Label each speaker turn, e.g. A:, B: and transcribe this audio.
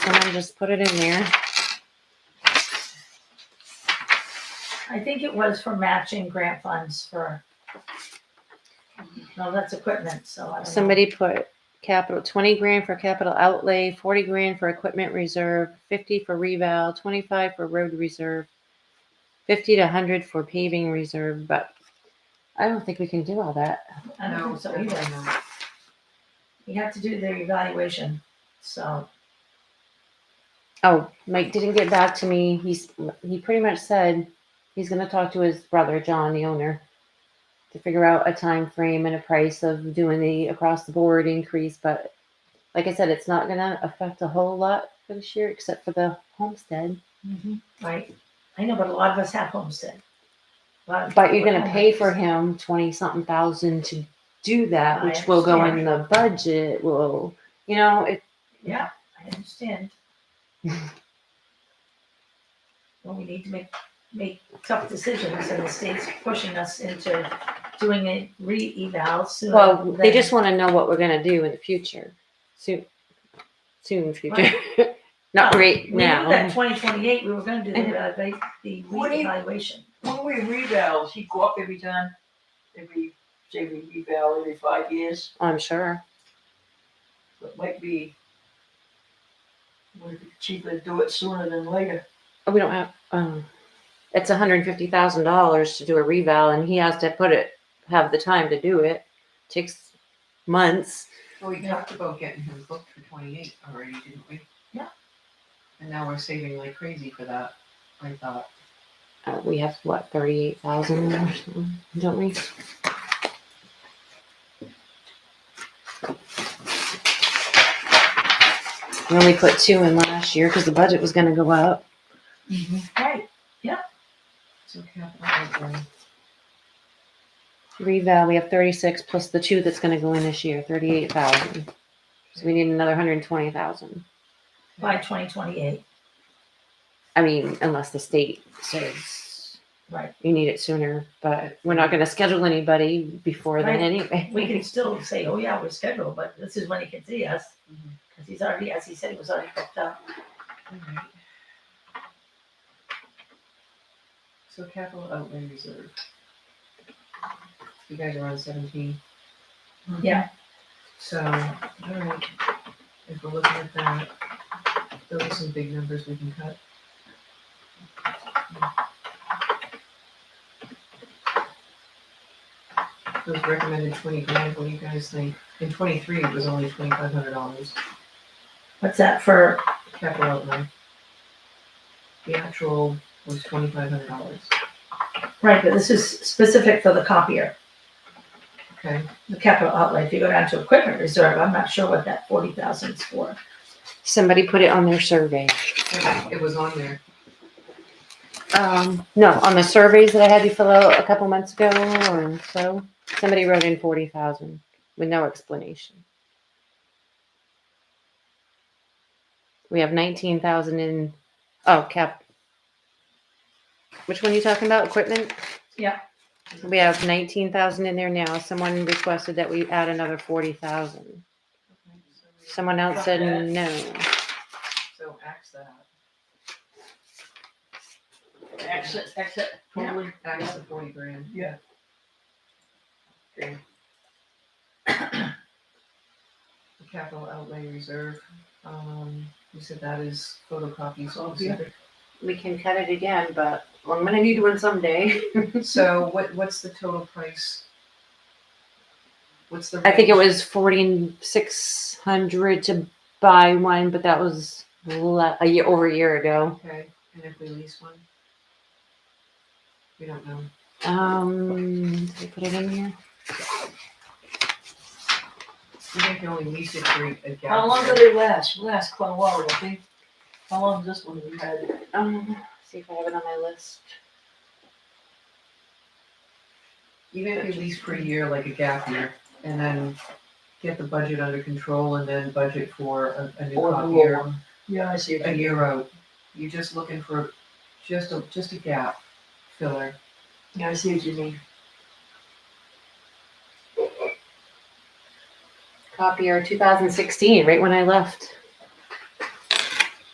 A: and then just put it in there.
B: I think it was for matching grant funds for, no, that's equipment, so I don't know.
A: Somebody put capital, twenty grand for capital outlay, forty grand for equipment reserve, fifty for reval, twenty-five for road reserve, fifty to hundred for paving reserve, but I don't think we can do all that.
B: I don't think so either. You have to do the evaluation, so,
A: Oh, Mike didn't get back to me. He's, he pretty much said he's gonna talk to his brother, John, the owner, to figure out a time frame and a price of doing the across the board increase, but like I said, it's not gonna affect a whole lot for this year, except for the homestead. Mm-hmm.
B: right, I know, but a lot of us have homestead. A lot of
A: But you're
B: people
A: gonna
B: have
A: pay for
B: homestead.
A: him twenty something thousand to do that,
B: I
A: which will go in the budget, will, you know, it,
B: Yeah, I understand. Well, we need to make, make tough decisions, and the state's pushing us into doing a re-eval sooner.
A: well, they
B: than-
A: just wanna know what we're gonna do in the future, soon, soon future. Not right
B: We knew that
A: now.
B: twenty twenty-eight, we were gonna do the, evalu- the
C: What do you-
B: reevaluation.
C: When we revals, he go up every time, every, say we reval every five years,
A: I'm sure.
C: so it might be. Would it be cheaper to do it sooner than later?
A: We don't have, um, it's hundred and fifty thousand dollars to do a reval and he has to put it, have the time to do it. Takes months.
D: Well, we talked about getting him booked for twenty-eight already, didn't we?
B: Yeah.
D: And now we're saving like crazy for that, I thought.
A: Uh, we have what, thirty-eight thousand or something, don't we? We only put two in last year because the budget was gonna go up.
C: Mm-hmm.
B: Right,
D: So capital outlay.
A: Reval, we have thirty-six plus the two that's gonna go in this year, thirty-eight thousand. So we need another hundred and twenty thousand.
B: by twenty twenty-eight,
A: I mean, unless the state says
B: right.
A: you need it sooner, but we're not gonna schedule anybody before then
B: Right.
A: anyway.
B: We can still say, oh yeah, we're scheduled, but this is when he can see us,
C: Mm-hmm.
D: Mhm.
B: because he's already, as he said, he was already booked up.
D: Alright. So capital outlay reserve. You guys are on seventeen.
B: Yeah.
D: So, alright, if we're looking at that, those are some big numbers we can cut. Those recommended twenty grand, what do you guys think? In twenty-three, it was only twenty-five hundred dollars
B: What's that for,
D: capital outlay. The actual was twenty-five hundred dollars,
B: right, but this is specific for the copier,
D: okay?
B: the capital outlay. If you go down to equipment reserve, I'm not sure what that forty thousand is for.
A: Somebody put it on their survey.
D: It was on there.
A: Um, no, on the surveys that I had you fill out a couple months ago or so, somebody wrote in forty thousand with no explanation. We have nineteen thousand in, oh, cap. Which one you talking about? Equipment?
B: Yeah.
A: We have nineteen thousand in there now. Someone requested that we add another forty thousand. Someone else said
D: Got
A: no.
D: So axe that,
C: Exit, exit, totally.
D: axe the forty grand.
C: Yeah.
D: Okay. The Capital outlay reserve, um, you said that is photocopies,
C: Oh,
D: obviously.
A: We can cut it again, but I'm gonna need one someday.
D: So what, what's the total price? What's the?
A: I think it
D: range?
A: was forty six hundred to buy one, but that was le- a year over a year ago.
D: Okay, and if we lease one? We don't know.
A: Um, did I put it in here?
D: We can only lease it for a gallon.
C: How long do they last? Last quite a while, I think. How long does this one we had? it?
A: Um, see if I have it on my list.
D: Even if you lease for a year, like a gap year, and then get the budget under control and then budget for a, a new
C: Or
D: crop
C: the
D: year,
C: one. Yeah, I see.
D: a year out. You're just looking for just a, just a gap filler.
C: Yeah, I see what you mean.
A: Copier two thousand sixteen, right when I left.